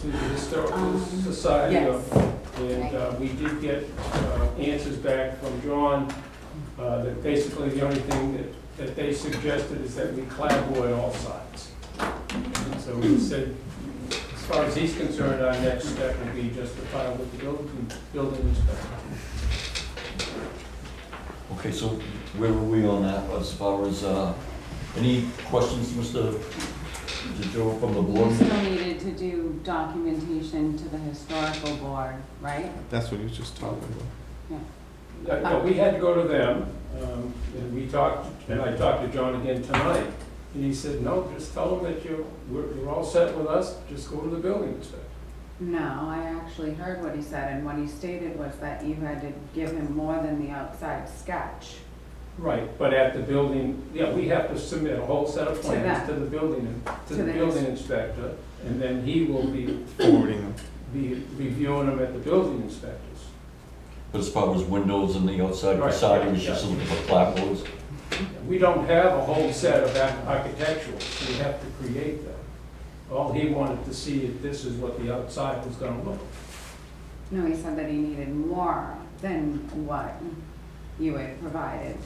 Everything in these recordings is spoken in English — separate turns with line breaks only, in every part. to the Historical
Um,
Society. of-
Yes,
And uh, we did get uh, answers back from John, uh, that basically the only thing that, that they suggested is that we clavoy all sides. And so we said, as far as he's concerned, our next step would be just to file with the building, building inspector.
Okay, so where were we on that as far as, uh, any questions, Mr. Joe from the
you
board?
still needed to do documentation to the historical board, right?
That's what he was just talking about.
Uh, no, we had to go to them, um, and we talked, and I talked to John again tonight, and he said, no, just tell them that you're, we're, you're all set with us, just go to the building inspector.
No, I actually heard what he said, and what he stated was that you had to give him more than the outside sketch.
Right, but at the building, yeah, we have to submit a whole set of
To
plans
them.
to the building, to
To
the
the
building inspector, and then he will be,
Forwarding them.
be reviewing them at the building inspectors.
But as far as windows and the outside
Right,
facade,
yeah,
he was just
yeah.
looking for clapboards.
We don't have a whole set of ar- architectural, we have to create them. All he wanted to see if this is what the outside was gonna look.
No, he said that he needed more than what you had provided.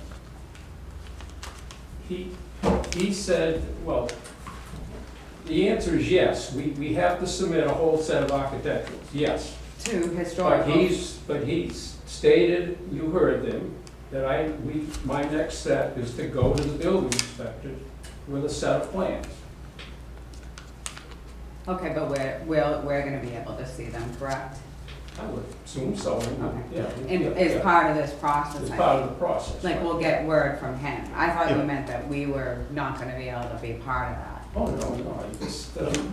He, he said, well, the answer is yes, we, we have to submit a whole set of architecturals, yes.
To
But
historical,
he's, but he's stated, you heard them, that I, we, my next step is to go to the building inspector with a set of plans.
okay, but we're, we're, we're gonna be able to see them, correct?
I would assume so, and, uh,
Okay.
yeah.
And
yeah,
it's
yeah.
part of this process,
It's
I
part
think.
of the process.
Like,
right.
we'll get word from him. I thought you
Yeah.
meant that we were not gonna be able to be part of that.
Oh, no, no, I just, um,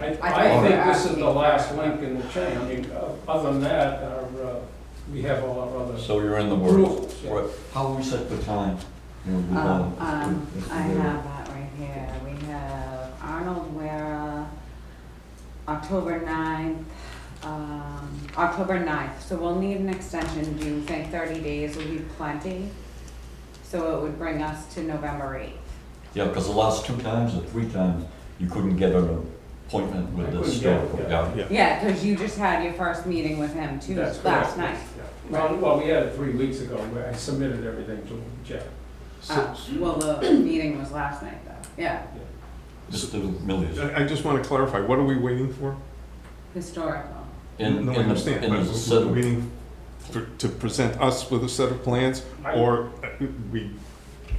I,
thought
I
you
think
were
this is
asking
the
for-
last link in the chain, I mean, uh, other than that, our, uh, we have all our other
So you're in the works.
rules. yeah.
Right. How are we set for time? You know, we
Um,
want-
um,
Mr.
I
Ware.
have that right here. We have Arnold Wara, October ninth, um, October ninth. So we'll need an extension. Do you think thirty days will be plenty? So it would bring us to November eighth.
Yeah, because the last two times or three times, you couldn't get an appointment
I
with the
couldn't get it,
historical
yeah.
guy.
Yeah.
Yeah, cause you just had your first meeting with him too,
That's
last
correct.
night.
yeah. Well, well, we had it three weeks ago, where I submitted everything to Jeff.
Uh, well, the meeting was last night though. Yeah,
Mr. Millius.
I I just want to clarify, what are we waiting for?
historical.
In,
No, I
in the,
understand,
in
but
the
we're
set,
waiting for- to present us with a set of plans,
I-
or uh, we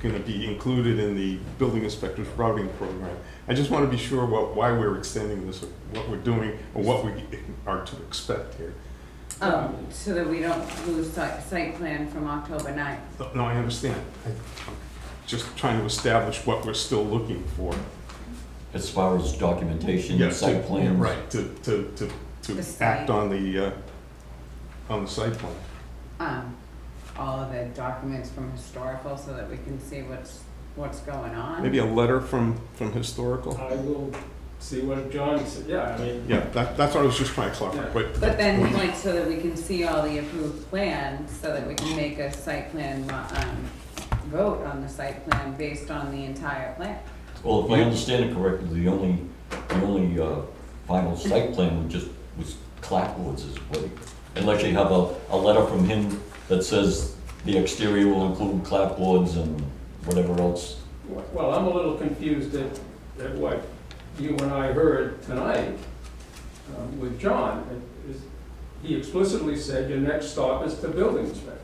going to be included in the building inspector's routing program? I just want to be sure what, why we're extending this, or what we're doing, or what we are to expect here.
Um, so that we don't lose site, site plan from October ninth.
No, I understand. I- I'm Just trying to establish what we're still looking for.
as far as documentation,
Yeah,
and site
to-
plans.
Right, to, to, to,
The
to
site.
act on the, uh, on the site plan.
um, all of the documents from historical so that we can see what's, what's going on.
Maybe a letter from, from historical?
I will see what John said, yeah, I mean,
Yeah, that, that's what I was just trying to clarify, but.
But then, like, so that we can see all the approved plans, so that we can make a site plan, um, vote on the site plan based on the entire plan.
Well, if I understand it correctly, the only, the only uh, final site plan would just, was clapboards is what, he- unless you have a, a letter from him that says the exterior will include clapboards and whatever else.
well, I'm a little confused at, at what you and I heard tonight um, with John. It is- He explicitly said your next stop is the building inspector.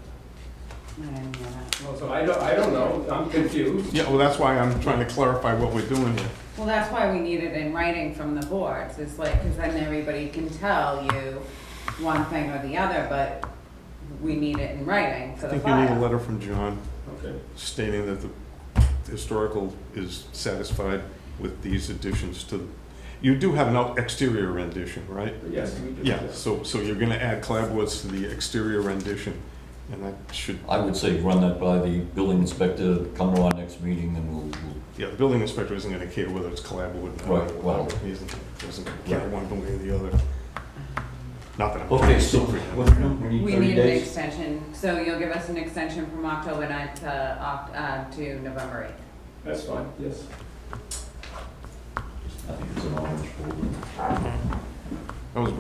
I didn't hear that.
Well, so I don't, I don't know, I'm confused.
Yeah, well, that's why I'm trying to clarify what we're doing here.
Well, that's why we need it in writing from the boards, it's like, cause then everybody can tell you one thing or the other, but we need it in writing for
I
the
think you need a
file.
letter from John
Okay,
stating that the historical is satisfied with these additions to, the- you do have an out- exterior rendition, right?
but yes, we do.
Yeah, so, so you're gonna add clapboards to the exterior rendition, and that should,
I would say run that by the building inspector, come to our next meeting and we'll, we'll-
yeah, the building inspector isn't gonna care whether it's clapboard or not.
Right, well-
He isn't, doesn't care one way or the other. Not that I'm.
Okay, so what do we do? We need
We
thirty
need an
days?
extension, so you'll give us an extension from October ninth to, Oc- uh, to November eighth.
That's fine, yes.
I think it's an orange folder.
That was